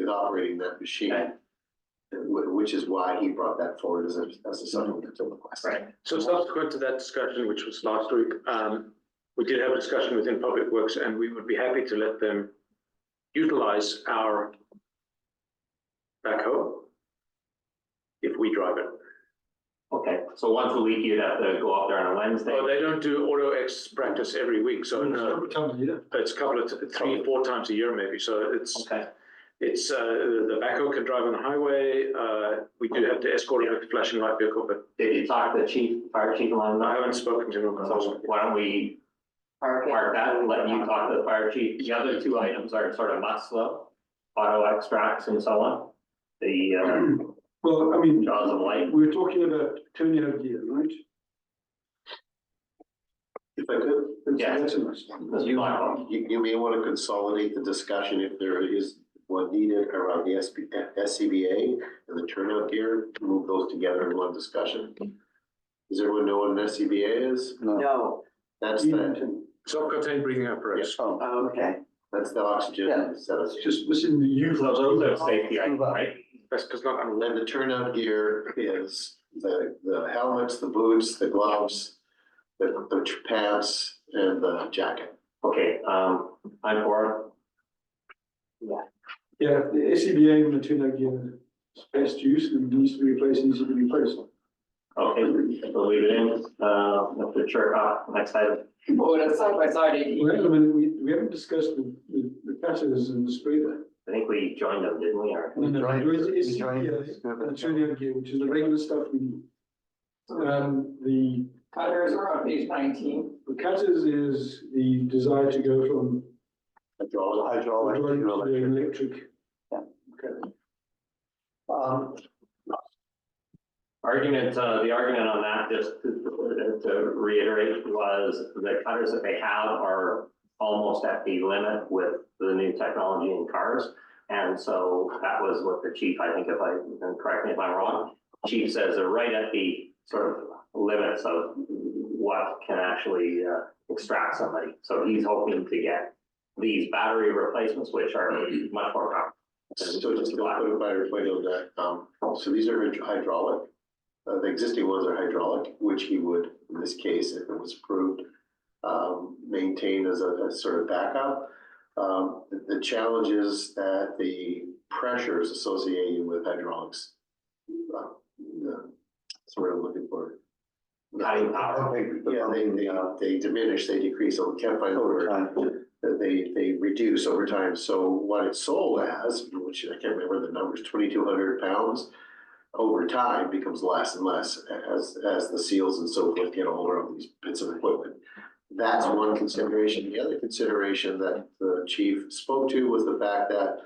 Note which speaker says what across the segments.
Speaker 1: operating that machine.
Speaker 2: Okay.
Speaker 1: wh- Which is why he brought that forward as a, as a supplemental request.
Speaker 2: Right.
Speaker 3: So subsequent to that discussion, which was last week, um, we did have a discussion within Public Works and we would be happy to let them utilize our backhoe if we drive it.
Speaker 2: Okay, so once a week you'd have to go up there on a Wednesday.
Speaker 3: Well, they don't do auto X practice every week, so no, it's a couple of, t- three, four times a year maybe, so it's,
Speaker 2: Okay,
Speaker 3: it's, uh, the backhoe can drive on the highway. Uh, we do have to escort it with flashing light vehicle, but
Speaker 2: did you talk to the chief, fire chief along
Speaker 3: I
Speaker 2: that?
Speaker 3: haven't spoken to him.
Speaker 2: So why don't we
Speaker 4: Park it.
Speaker 2: mark that and let you talk to the fire chief? The other two items are sort of must slow, auto extracts and so on. The
Speaker 5: Well, I
Speaker 2: uh,
Speaker 5: mean,
Speaker 2: jaws of light.
Speaker 5: we're talking about turning out gear, right?
Speaker 1: If I could,
Speaker 2: Yeah.
Speaker 5: That's a nice one.
Speaker 2: Mr. Blackwell.
Speaker 1: you, you may want to consolidate the discussion if there is one needed around the SB, SCBA and the turnout gear, move those together in one discussion. Does everyone know what an SCBA is?
Speaker 4: No,
Speaker 1: That's the,
Speaker 5: Even-
Speaker 3: Self-contained breathing apparatus.
Speaker 4: Oh, okay.
Speaker 1: that's the oxygen setup.
Speaker 5: Just within the youth.
Speaker 2: So those are safety items, right?
Speaker 3: That's because not on.
Speaker 1: Then the turnout gear is the, the helmets, the boots, the gloves, the, the tr- pants and the jacket.
Speaker 2: Okay, um, I'm for
Speaker 5: Yeah, the SCBA and the turn out gear is best use and needs to be replaced, needs to be replaced.
Speaker 2: it. Okay, we'll leave it in. Uh, Mr. Chirkov, next item.
Speaker 4: Well, that's side by side,
Speaker 5: Well, I mean, we, we haven't discussed the, the, the patterns and the spray there.
Speaker 2: I think we joined them, didn't we? Or
Speaker 5: No, no,
Speaker 6: Right,
Speaker 5: there is
Speaker 6: we joined
Speaker 5: SCBA
Speaker 6: this.
Speaker 5: E and the turn out gear, which is the regular stuff we need. Um, the
Speaker 4: Cutters are on page nineteen.
Speaker 5: the cutters is the desire to go from
Speaker 1: Hydraulic.
Speaker 6: Hydraulic,
Speaker 5: hydraulic to
Speaker 6: electric.
Speaker 5: electric.
Speaker 6: Um,
Speaker 2: argument, uh, the argument on that, just to to reiterate, was the cutters that they have are almost at the limit with the new technology in cars. And so that was what the chief, I think if I, and correct me if I'm wrong, chief says they're right at the sort of limits of what can actually uh, extract somebody. So he's hoping to get these battery replacements, which are much more powerful.
Speaker 1: So just to clarify, everybody on that, um, so these are hyd- hydraulic. Uh, the existing ones are hydraulic, which he would, in this case, if it was approved, um, maintain as a, as sort of backup. Um, the, the challenge is that the pressures associated with hydraulics, uh, the, that's what I'm looking for.
Speaker 2: Cutting power.
Speaker 1: Yeah, they, they, uh, they diminish, they decrease, I can't find the word
Speaker 6: Overtime.
Speaker 1: that they, they reduce over time. So what it's sold as, which I can't remember the numbers, twenty-two hundred pounds, over time becomes less and less as, as the seals and so forth get older on these bits of equipment. That's one consideration. The other consideration that the chief spoke to was the fact that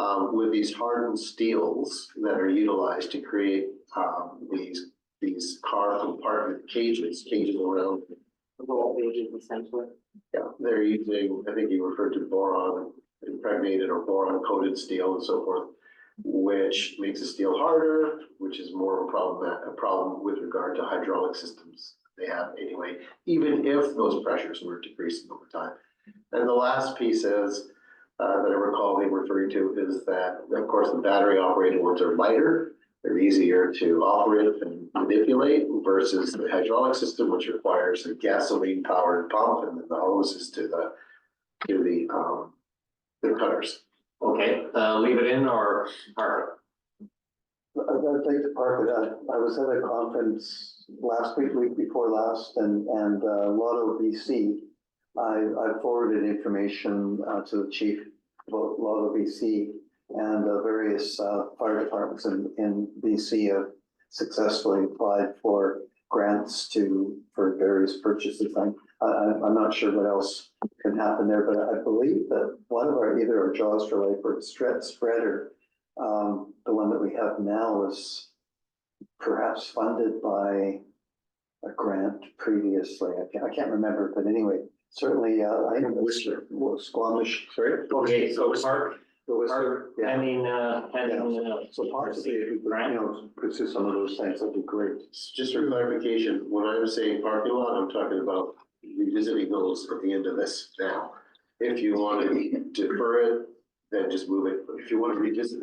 Speaker 1: um, with these hardened steels that are utilized to create um, these, these car compartment cages, cages around
Speaker 4: Little pages essentially.
Speaker 1: yeah, they're using, I think you referred to boron impregnated or boron coated steel and so forth, which makes the steel harder, which is more of a problem, a problem with regard to hydraulic systems they have anyway, even if those pressures were decreasing over time. And the last piece is, uh, that I recall they were referring to is that, of course, the battery operated ones are lighter. They're easier to operate and manipulate versus the hydraulic system, which requires a gasoline powered pump and then the hoses to the, to the, um, the cutters.
Speaker 2: Okay, uh, leave it in or, or,
Speaker 6: I'd I'd like to park it up. I was at a conference last week, week before last, and, and uh, Lotto BC. I, I forwarded information uh, to the chief about Lotto BC and uh, various uh, fire departments in, in BC have successfully applied for grants to, for various purchases. I'm, I, I- I'm not sure what else can happen there, but I believe that one of our, either our Jaws for Life or Stret Spreader um, the one that we have now is perhaps funded by a grant previously. I can't, I can't remember, but anyway, certainly, uh, I think Whistler, Squamish. Sorry?
Speaker 2: okay, so park,
Speaker 6: The Whistler,
Speaker 2: park,
Speaker 6: yeah.
Speaker 2: pending, uh, pending. uh,
Speaker 6: So possibly, if we could, you know, pursue some of those things, that'd be great.
Speaker 1: Just for clarification, when I'm saying parking lot, I'm talking about revisiting those at the end of this now. If you want to defer it, then just move it. But If you want to revisit